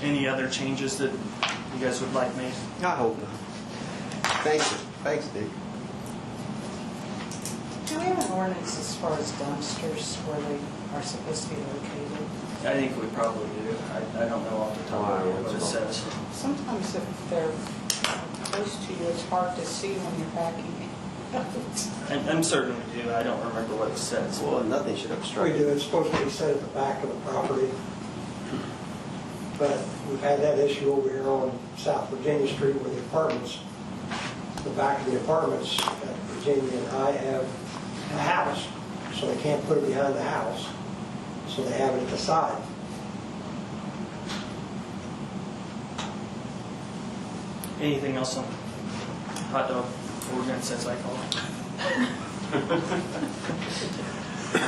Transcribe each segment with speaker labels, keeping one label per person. Speaker 1: any other changes that you guys would like made?
Speaker 2: I hope not. Thanks, thanks, Dick.
Speaker 3: Do we have an ordinance as far as dumpsters where they are supposed to be located?
Speaker 1: I think we probably do. I, I don't know off the top of my head what it says.
Speaker 3: Sometimes if they're close to you, it's hard to see when you're backing it.
Speaker 1: I'm, I'm certain we do. I don't remember what it says.
Speaker 2: Well, nothing should
Speaker 4: We
Speaker 2: obstruct.
Speaker 4: do, it's supposed to be set at the back of the property. But we've had that issue over here on South Virginia Street with the apartments. The back of the apartments, uh, Virginia and I have a house, so they can't put it behind the house. So they have it at the side.
Speaker 1: Anything else on hot dog ordinance, as I call it?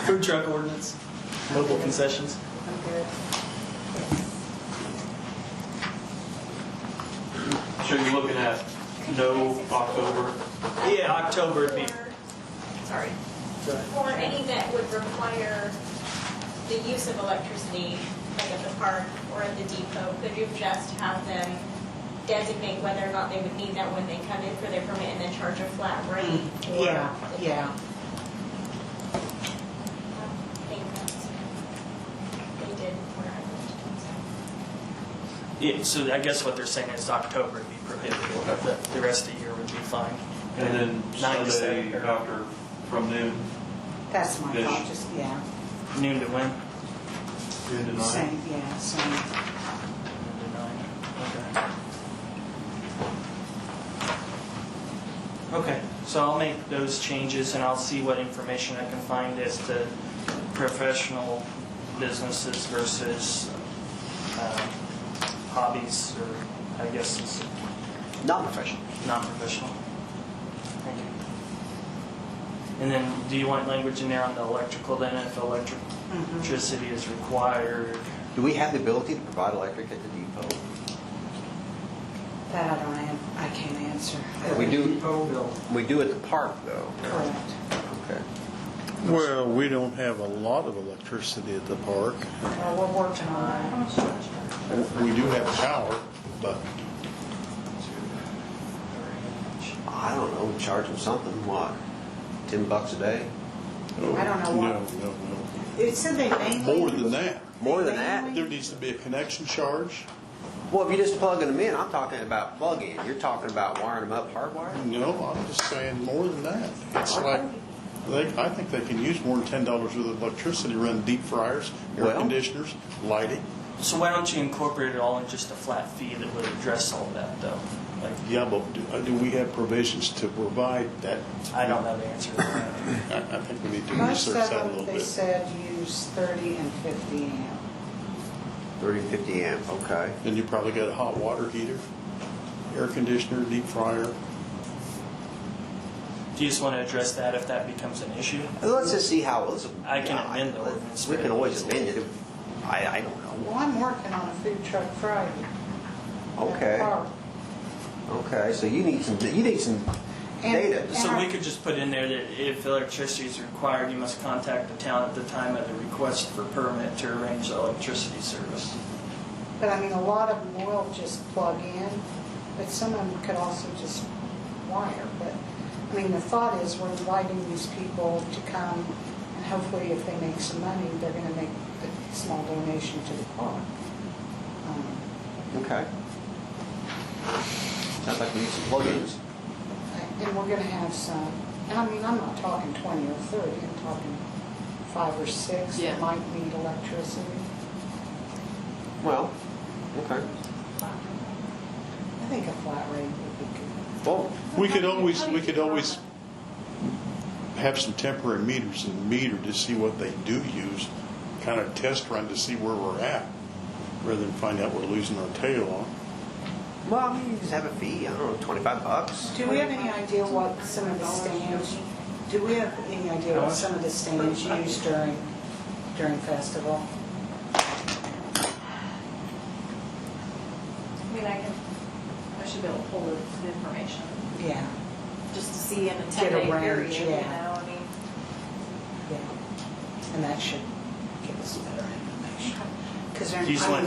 Speaker 1: Food truck ordinance, local concessions.
Speaker 3: I'm good.
Speaker 5: So you're looking at no October?
Speaker 1: Yeah, October would be,
Speaker 6: Sorry.
Speaker 1: Go ahead.
Speaker 6: Or any that would require the use of electricity, like at the park or at the depot, could you just have them designate whether or not they would need that when they come in for their permit and then charge a flat rate? or-
Speaker 3: Yeah, yeah.
Speaker 6: I think that's, they did where I lived.
Speaker 1: yeah, so I guess what they're saying is October would be prohibited, but the- the rest of the year would be fine.
Speaker 5: And then
Speaker 1: Nine to
Speaker 5: Sunday
Speaker 1: seven.
Speaker 5: after, from noon,
Speaker 3: That's my
Speaker 5: Yes.
Speaker 3: thought, just, yeah,
Speaker 1: Noon to when?
Speaker 5: noon to nine?
Speaker 3: same, yeah, same.
Speaker 1: Noon to nine. Okay. Okay, so I'll make those changes and I'll see what information I can find as to professional businesses versus um, hobbies or I guess it's
Speaker 2: Non-professional.
Speaker 1: non-professional. Thank you. And then, do you want language in there on the electrical then, if
Speaker 3: Mm-hmm.
Speaker 1: electricity is required?
Speaker 2: Do we have the ability to provide electric at the depot?
Speaker 3: That I don't, an- I can't answer.
Speaker 2: We do.
Speaker 4: Depot bill.
Speaker 2: We do at the park, though.
Speaker 3: Correct.
Speaker 2: Okay.
Speaker 7: Well, we don't have a lot of electricity at the park.
Speaker 3: Well, we're working on that.
Speaker 7: We do have power, but
Speaker 2: I don't know, charge them something, what, 10 bucks a day?
Speaker 3: I don't know what-
Speaker 7: No, no,
Speaker 3: It said they
Speaker 7: no.
Speaker 3: mainly.
Speaker 7: More than that.
Speaker 2: More than that?
Speaker 7: There needs to be a connection charge.
Speaker 2: Well, if you're just plugging them in, I'm talking about plug-in. You're talking about wiring them up hardwired?
Speaker 7: No, I'm just saying more than that. It's like, they, I think they can use more than ten dollars worth of electricity, run deep fryers, air
Speaker 2: Well-
Speaker 7: conditioners, lighting.
Speaker 1: So why don't you incorporate it all in just a flat fee that would address all that, though? Like,
Speaker 7: Yeah, but do, uh, do we have provisions to provide that?
Speaker 1: I don't know the answer to that.
Speaker 7: I, I think we need to
Speaker 3: Most
Speaker 7: research
Speaker 3: of
Speaker 7: that a little
Speaker 3: them, they
Speaker 7: bit.
Speaker 3: said use 30 and 50 amp.
Speaker 2: 30, 50 amp, okay.
Speaker 7: Then you probably got a hot water heater, air conditioner, deep fryer.
Speaker 1: Do you just want to address that if that becomes an issue?
Speaker 2: Let's just see how, let's.
Speaker 1: I can amend the ordinance.
Speaker 2: We can always amend it. I, I don't know.
Speaker 3: Well, I'm working on a food truck Friday. at the
Speaker 2: Okay.
Speaker 3: park.
Speaker 2: Okay, so you need some, you need some data.
Speaker 3: And-
Speaker 1: So we could just put in there that if electricity is required, you must contact the town at the time of the request for permit to arrange the electricity service.
Speaker 3: But I mean, a lot of them will just plug in, but some of them could also just wire. But, I mean, the thought is we're inviting these people to come and hopefully if they make some money, they're going to make a small donation to the park. Um,
Speaker 2: Okay. Sounds like we need some plugins.
Speaker 3: And we're gonna have some, and I mean, I'm not talking twenty or thirty, I'm talking five or six that
Speaker 8: Yeah.
Speaker 3: might need electricity.
Speaker 2: Well, okay.
Speaker 3: I think a flat rate would be good.
Speaker 2: Well,
Speaker 7: We could always, we could always have some temporary meters and meter to see what they do use, kind of test run to see where we're at, rather than find out we're losing our tail on.
Speaker 2: well, I mean, you just have a fee. I don't know, twenty-five bucks.
Speaker 3: Do we have any idea what some of the stands, do we have any idea what some of the stands use during, during festival?
Speaker 8: I mean, I can, I should be able to pull the information,
Speaker 3: Yeah,
Speaker 8: just to see in a
Speaker 3: Get a
Speaker 8: 10-day
Speaker 3: range,
Speaker 8: period, you know,
Speaker 3: yeah.
Speaker 8: I mean.
Speaker 3: yeah. And that should give us better information. 'Cause they're-
Speaker 1: Do you just
Speaker 3: I
Speaker 1: want